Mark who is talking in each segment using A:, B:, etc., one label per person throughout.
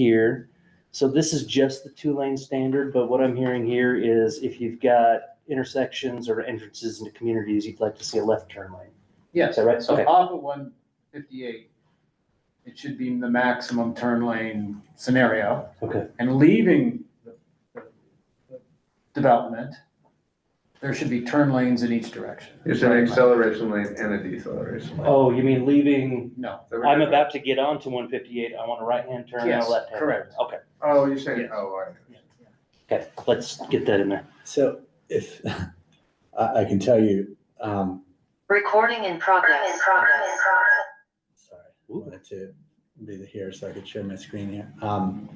A: here. So this is just the two lane standard, but what I'm hearing here is if you've got intersections or entrances into communities, you'd like to see a left turn lane. Is
B: Yes,
A: that right?
B: so
A: Okay.
B: off of one fifty-eight, it should be the maximum turn lane scenario.
A: Okay.
B: And leaving the- the- the development, there should be turn lanes in each direction.
C: It's an acceleration lane and a deceleration lane.
A: Oh, you mean leaving,
B: No,
A: I'm about to get onto one fifty-eight, I want a right hand turn and a
B: Yes,
A: left hand.
B: correct.
A: Okay,
C: Oh, you're saying, oh, all right.
A: okay, let's get that in there.
D: So if, I, I can tell you, um,
E: Recording in progress.
D: sorry, I
A: Ooh.
D: wanted to be here so I could share my screen here. Um,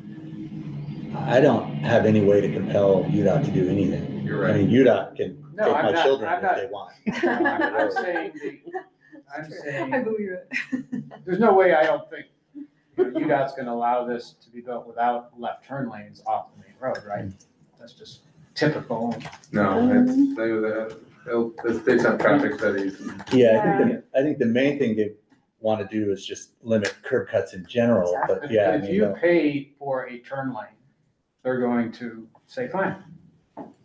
D: I don't have any way to compel UDOT to do anything.
C: You're
D: I
C: right.
D: mean, UDOT can
B: No,
D: take
B: I'm
D: my
B: not-
D: children
B: I'm
D: if
B: not-
D: they want.
B: I'm I'm saying, the- I'm saying.
F: I believe it.
B: There's no way, I don't think, you know, UDOT's gonna allow this to be built without left turn lanes off the main road, right? That's just typical.
C: No, it's, they, they'll, it's based on traffic studies. and-
D: Yeah, I think, the I think the main thing they want to do is just limit curb cuts in general, but
B: If-
D: yeah, I
B: If
D: mean,
B: you
D: no,
B: pay for a turn lane, they're going to say, fine,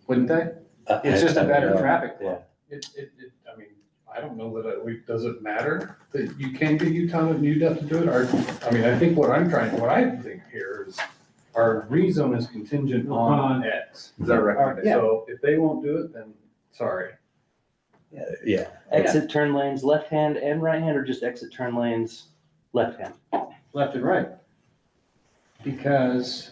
B: wouldn't they?
D: I-
B: It's just
D: I
B: a
D: don't
B: better
D: know.
B: traffic flow.
G: It, it, it, I mean, I don't know that we, does it matter that you can get Utah and UDOT to do it? Or, I mean, I think what I'm trying, what I think here is our rezone is contingent
A: Uh-huh.
G: on X.
C: Is that right?
G: So if they won't do it, then sorry.
D: Yeah,
A: Exit turn lanes, left hand and right hand, or just exit turn lanes, left hand?
B: left and right. Because,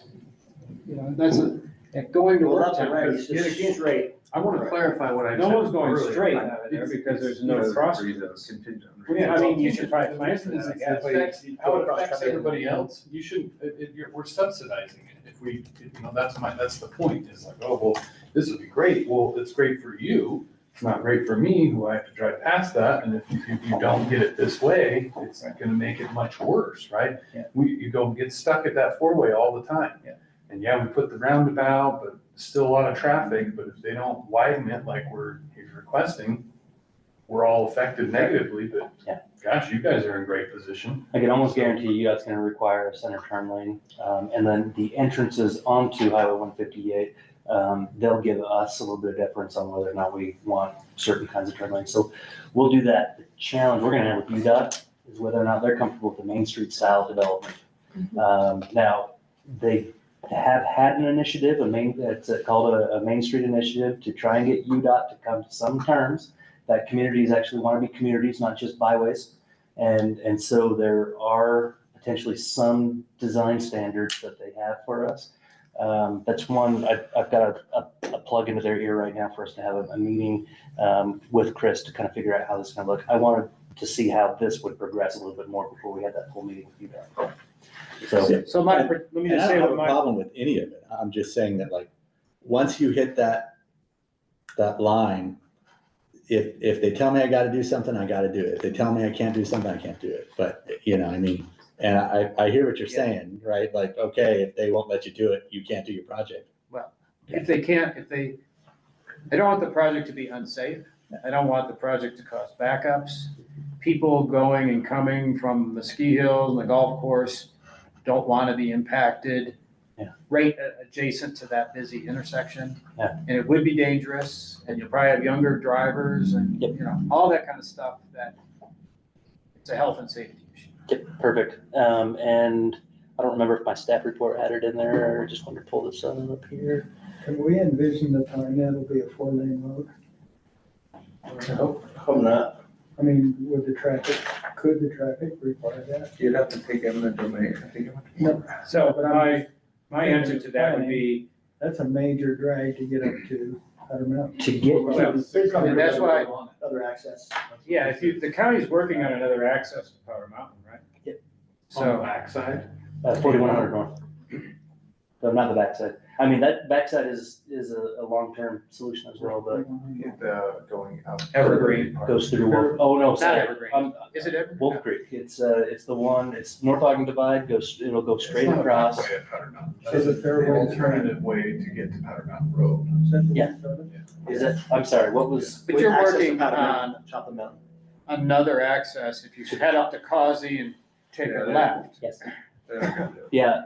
B: you know, that's, a- and going to work time, because yet again,
G: straight. I want to clarify what I said.
B: no one's going
G: earlier.
B: straight out of there
G: It's-
B: because there's
C: You know,
B: no
C: the
B: cross.
C: reasons contingent on
B: Well,
C: reasons.
B: yeah, I mean, you should probably plan for that, I
G: It's-
B: guess.
G: it affects- How it affects everybody else, you shouldn't, it, it, you're, we're subsidizing it, if we, you know, that's my, that's the point, is like, oh, well, this would be great, well, it's great for you, it's not great for me, who I have to drive past that, and if you, if you don't get it this way, it's gonna make it much worse, right?
B: Yeah.
G: We, you don't get stuck at that four-way all the time.
B: Yeah.
G: And yeah, we put the roundabout, but still a lot of traffic, but if they don't widen it like we're, he's requesting, we're all affected negatively, but
A: Yeah.
G: gosh, you guys are in great position.
A: I can almost guarantee you that's gonna require a center turn lane. Um, and then the entrances onto Highway one fifty-eight, um, they'll give us a little bit of deference on whether or not we want certain kinds of turn lanes. So we'll do that. The challenge we're gonna have with UDOT is whether or not they're comfortable with the Main Street style development. Um, now, they have had an initiative, a main, it's called a, a Main Street Initiative to try and get UDOT to come to some terms that communities actually wanna be communities, not just byways. And, and so there are potentially some design standards that they have for us. Um, that's one, I've, I've got a, a, a plug into their ear right now for us to have a, a meeting, um, with Chris to kind of figure out how this is gonna look. I wanted to see how this would progress a little bit more before we had that full meeting with you guys. So,
B: So my, let me
D: And
B: just
D: I
B: say
D: don't have
B: what
D: a
B: my.
D: problem with any of it. I'm just saying that like, once you hit that, that line, if, if they tell me I gotta do something, I gotta do it. If they tell me I can't do something, I can't do it. But, you know, I mean, and I, I hear what you're saying, right? Like, okay, if they won't let you do it, you can't do your project.
B: If they can't, if they, I don't want the project to be unsafe. I don't want the project to cause backups. People going and coming from the ski hill and the golf course don't want to be impacted.
A: Yeah.
B: Right a- adjacent to that busy intersection.
A: Yeah.
B: And it would be dangerous and you'll probably have younger drivers and, you know, all that kind of stuff that it's a health and safety issue.
A: yep, perfect. Um, and I don't remember if my staff report had it in there, I just wanted to pull this up here.
H: Can we envision the time that will be a four lane road? I mean, would the traffic, could the traffic require that?
C: You'd have to take eminent domain, I think.
B: So my, my answer to that would be,
H: That's a major drag to get up to Powder Mountain.
A: To get to-
B: and that's why,
H: Other access.
B: Yeah, if you, the county's working on another access to Powder Mountain, right?
A: Yep.
G: On the
B: So,
G: backside?
A: Uh, forty-one hundred north. No, not the backside. I mean, that backside is, is a, a long-term solution as well, but
C: The going out.
B: Evergreen.
A: goes through Wolf, oh, no,
B: Not
A: sorry.
B: Evergreen.
A: Um,
B: is it ever?
A: Wolf Creek, it's, uh, it's the one, it's North Ogden Divide, goes, it'll go straight across.
G: Way at Powder Mountain.
H: So is it fair
G: An
H: way to-
G: Alternative way to get to Powder Mountain Road.
A: Yeah. Is it, I'm sorry, what was?
B: But you're working on
D: Top of the mountain.
B: another access, if you head up to Causey and take a
C: Yeah.
B: left.
A: Yes,
C: Yeah, I got you.
A: yeah,